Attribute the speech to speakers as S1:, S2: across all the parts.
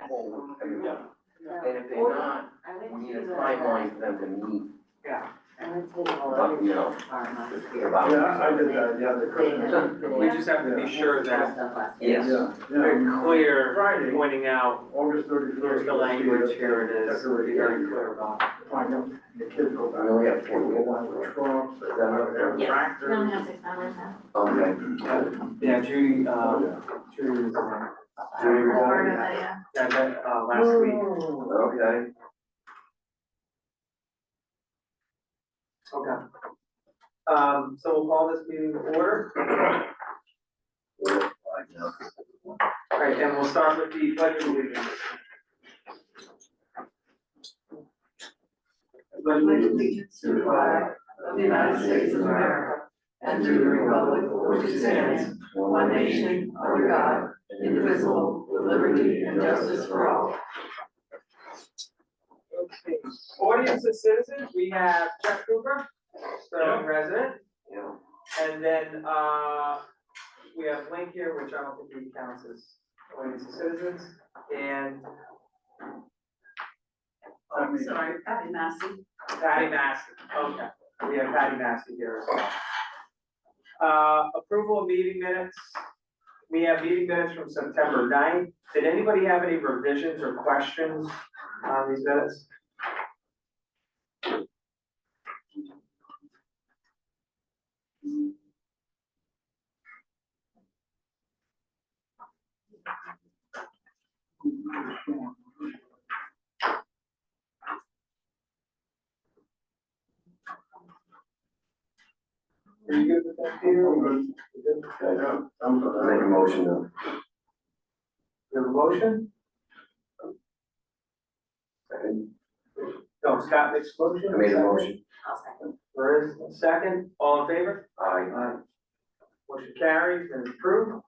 S1: whole every
S2: Yeah.
S1: month.
S2: Yeah.
S1: And if they're not,
S2: I went
S1: we need a
S2: to the-
S1: timeline for them to meet,
S2: Yeah, I went to the
S1: but, you know,
S2: farm last
S1: just
S2: year.
S1: about.
S3: Yeah, I did that, yeah, the Christmas.
S4: We just have to be sure that
S2: Stuff last year.
S1: Yes.
S3: Yeah,
S4: they're
S3: yeah.
S4: clear,
S3: Friday.
S4: pointing out,
S3: August thirty-first.
S4: here's the language, here it is, be very clear about it.
S3: Find out, the kids go back.
S1: We only have four.
S3: They go on with trunks, they go on their
S2: Yes.
S3: tractors.
S2: No, no, six hours now.
S1: Okay,
S4: Yeah, Judy,
S3: Oh,
S4: uh,
S3: yeah.
S4: Judy was, uh,
S1: Do you recall
S2: Part of
S1: that?
S2: it, yeah.
S4: yeah, that, uh, last week.
S1: okay.
S4: Okay. Um, so we'll call this meeting to order,
S1: Well, I know.
S4: all right, and we'll start with the pledge of allegiance. Pledge of allegiance.
S5: to the flag of the United States of America and to the republic for which it stands, one nation, under God, indivisible, with liberty and justice for all.
S4: Okay. Audience of citizens, we have Chuck Cooper, Sterling resident.
S1: Yeah.
S4: And then, uh, we have Link here, which I don't think he counts as audience of citizens, and.
S3: I'm
S5: sorry, Patty Massey.
S4: Patty Massey, okay, we have Patty Massey here as well. Uh, approval of meeting minutes, we have meeting minutes from September 9th. did anybody have any revisions or questions on these minutes? Are you good with that, Peter?
S3: I'm
S4: You good?
S1: Okay.
S3: Yeah, I'm sorry.
S1: Make a motion to
S4: You have a motion?
S1: Second.
S4: No, Scott makes a motion.
S1: I made a motion.
S2: I'll second.
S4: There is a second, all in favor?
S1: Aye.
S4: Motion carries and approved.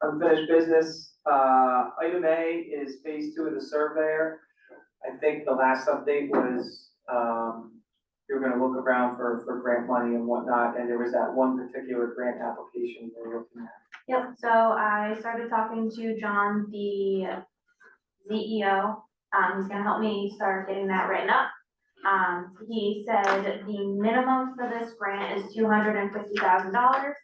S4: Unfinished business, uh, item A is phase two of the surveyor. I think the last update was, um, you're gonna look around for, for grant money and whatnot, and there was that one particular grant application you were looking at.
S6: Yep, so I started talking to John, the CEO, um, he's gonna help me start getting that written up. Um, he said the minimum for this grant is two hundred and fifty thousand dollars.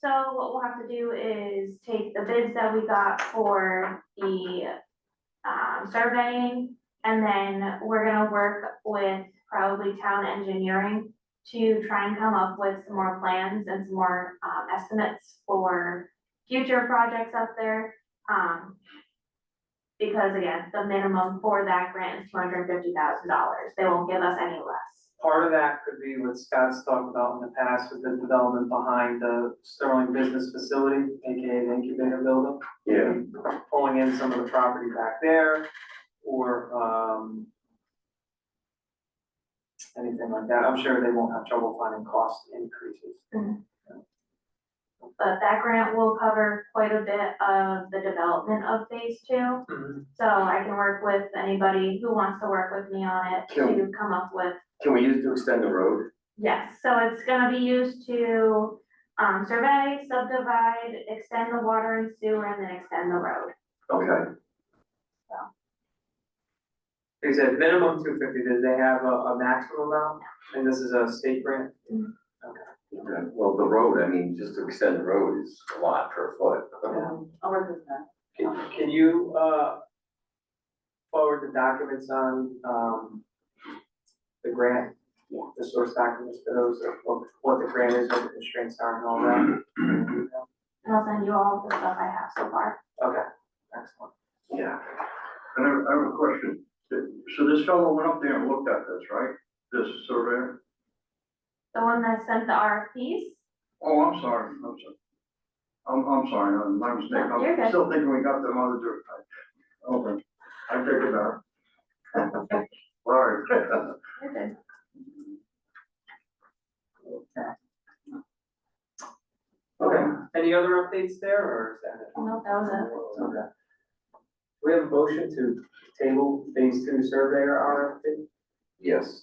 S6: So what we'll have to do is take the bids that we got for the, um, surveying, and then we're gonna work with probably town engineering to try and come up with some more plans and some more, um, estimates for future projects up there. Um, because again, the minimum for that grant is two hundred and fifty thousand dollars. They won't give us any less.
S4: Part of that could be what Scott's talked about in the past with the development behind the Sterling Business Facility, AKA the incubator building.
S1: Yeah,
S4: pulling in some of the property back there, or, um, anything like that, I'm sure they won't have trouble finding cost increases.
S6: But that grant will cover quite a bit of the development of phase two. So I can work with anybody who wants to work with me on it to come up with
S1: can we use it to extend the road?
S6: Yes, so it's gonna be used to, um, survey, subdivide, extend the water and sewer, and then extend the road.
S1: Okay.
S4: He said minimum two fifty, did they have a, a maximum amount? And this is a state grant?
S1: Okay, well, the road, I mean, just to extend the road is a lot per foot.
S2: Um, I'll work with that.
S4: Can, can you, uh, forward the documents on, um, the grant?
S2: Yeah.
S4: The source documents for those, of what, what the grant is, what the constraints are and all that?
S6: And I'll send you all the stuff I have so far.
S4: Okay, excellent.
S1: Yeah.
S3: And I have, I have a question. So this fellow went up there and looked at this, right? This surveyor?
S6: The one that sent the RFPs,
S3: Oh, I'm sorry, I'm sorry. I'm, I'm sorry, I'm- my mistake.
S6: No, you're good.
S3: I'm still thinking we got them other dirt. Okay, I take it back. Sorry.
S6: you're good.
S4: Okay, any other updates there, or is that it?
S6: Nope, that was it.
S4: Okay. We have a motion to table phase two surveyor RFP,
S1: Yes.